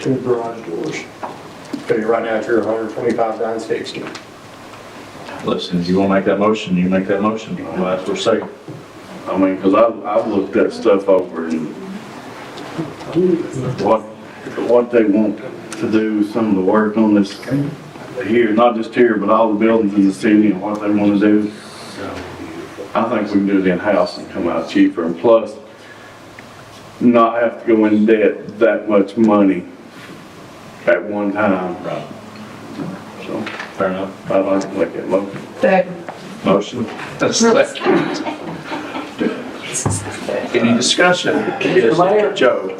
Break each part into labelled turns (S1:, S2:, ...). S1: two garage doors. So you're right now, you're 125, 960.
S2: Listen, if you wanna make that motion, you make that motion, I'll ask for a second.
S3: I mean, because I've, I've looked that stuff over and what, what they want to do, some of the work on this here, not just here, but all the buildings in the city and what they want to do. I think we can do it in-house and come out cheaper and plus not have to go in debt that much money at one time.
S2: Right.
S3: So
S2: Fair enough.
S3: I'd like to make that motion.
S4: Second.
S2: Motion. Any discussion?
S5: Mr. Mayor?
S2: Joe?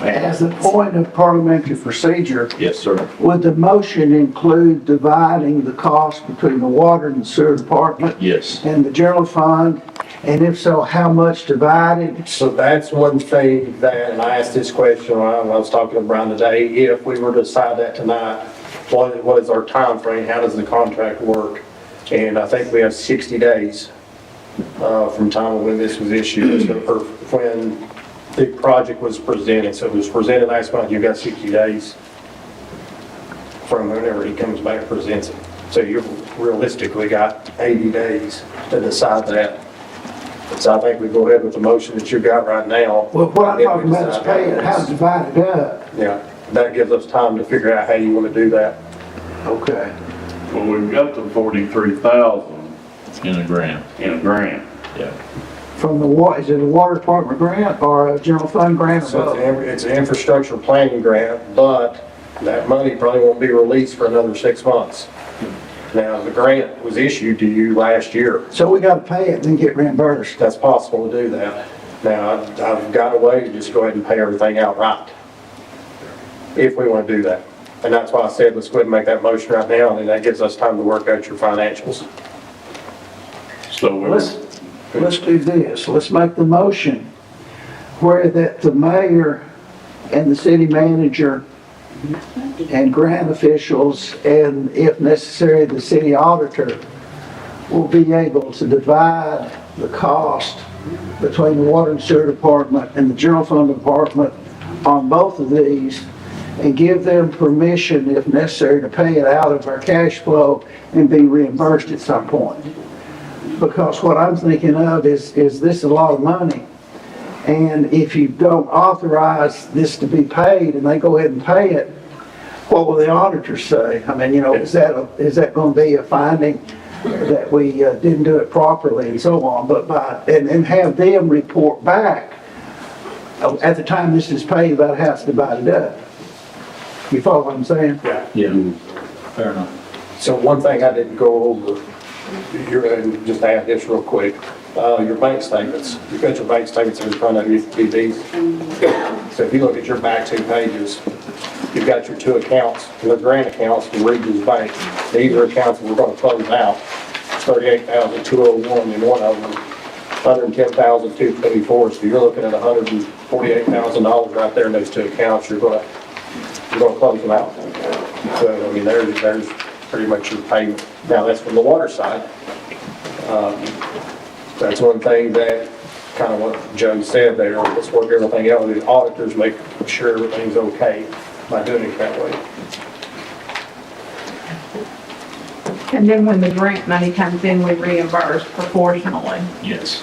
S5: As a point of parliamentary procedure,
S2: Yes, sir.
S5: would the motion include dividing the cost between the water and sewer department
S2: Yes.
S5: and the general fund? And if so, how much divided?
S1: So that's one thing that, and I asked this question when I was talking to Brian today, if we were to decide that tonight, what, what is our timeframe? How does the contract work? And I think we have 60 days, uh, from time when this was issued, so- or when the project was presented. So it was presented last month, you've got 60 days from whenever he comes back and presents it. So you've realistically got 80 days to decide that. So I think we go ahead with the motion that you got right now.
S5: Well, what I'm talking about is
S1: Then we
S5: paying, how to
S1: decide.
S5: divide it up.
S1: Yeah, that gives us time to figure out how you want to do that.
S5: Okay.
S3: Well, we've got the forty-three thousand
S2: In a grant.
S3: in a grant.
S2: Yeah.
S5: From the wa, is it a water department grant or a general fund grant? or
S1: So it's
S5: both?
S1: an, it's an infrastructure planning grant, but that money probably won't be released for another six months. Now, the grant was issued to you last year.
S5: So we gotta pay it, then get reimbursed.
S1: That's possible to do that. Now, I've- I've got a way to just go ahead and pay everything outright, if we want to do that. And that's why I said, let's go ahead and make that motion right now, and then that gives us time to work out your financials.
S3: So we
S5: Let's, let's do this, let's make the motion where that the mayor and the city manager and grant officials, and if necessary, the city auditor, will be able to divide the cost between the water and sewer department and the general fund department on both of these, and give them permission, if necessary, to pay it out of our cash flow and be reimbursed at some point because what I'm thinking of is, is this a lot of money? And if you don't authorize this to be paid and they go ahead and pay it, what will the auditors say? I mean, you know, is that, a- is that gonna be a finding that we uh, didn't do it properly and so on? But by, and, and have them report back uh, at the time this is paid about how it's divided up. You follow what I'm saying?
S1: Yeah.
S2: Yeah. Fair enough.
S1: So one thing I didn't go over, you're, and just add this real quick, uh, your bank statements, you've got your bank statements in front of you, it'd be these. So if you look at your back two pages, you've got your two accounts, the grant accounts from Regions Bank. These are accounts that we're gonna close out, thirty-eight thousand two oh one in one of them, hundred and ten thousand two twenty-four, so you're looking at hundred and forty-eight thousand dollars right there in those two accounts, you're gonna, you're gonna close them out. So, I mean, there's, there's pretty much your payment. Now, that's from the water side. Um, That's one thing that, kind of what Joe said there, let's work everything out with the auditors, make sure everything's okay by doing it that way.
S4: And then when the grant money comes in, we reimburse proportionally
S2: Yes.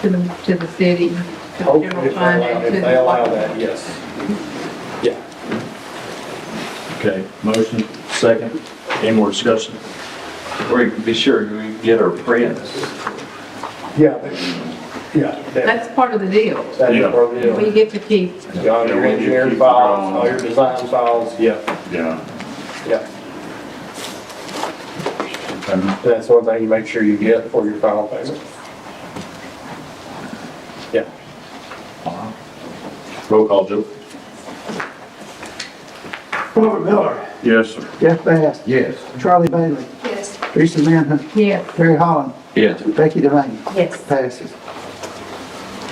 S4: to the, to the city, to the
S1: Hopefully,
S4: general
S1: if they
S4: fund.
S1: allow-
S4: and to
S1: If
S4: the
S1: they allow
S4: local.
S1: that, yes. Yeah.
S2: Okay, motion, second. Any more discussion?
S6: Or you can be sure we get our prints.
S1: Yeah. they- Yeah. that-
S4: That's part of the deal.
S1: That is
S2: Yeah.
S1: part of the
S4: We
S1: deal.
S4: get to keep,
S1: Yeah, all your engineering files, all your design files, yeah,
S3: Yeah.
S1: yeah.
S2: Fair enough.
S1: That's one thing you make sure you get for your final payment. Yeah.
S2: Roll call, Joe.
S5: Robert Miller.
S3: Yes, sir.
S5: Jeff Bass.
S6: Yes.
S5: Charlie Bailey.
S7: Yes.
S5: Teresa Manhunt.
S4: yes,
S5: Terry Holland.
S6: Yes.
S5: Becky Devane.
S7: Yes.
S5: Passes.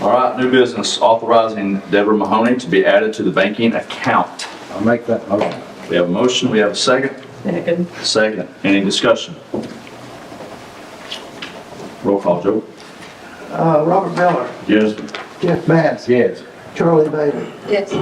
S6: All right, new business, authorizing Deborah Mahoney to be added to the banking account.
S8: I'll make that motion.
S6: We have a motion, we have a second.
S4: second,
S6: Second. Any discussion? Roll call, Joe.
S5: Uh, Robert Miller,
S3: Yes, sir.
S5: Jeff Bass,
S8: Yes.
S9: Charlie Bailey.
S5: Yes.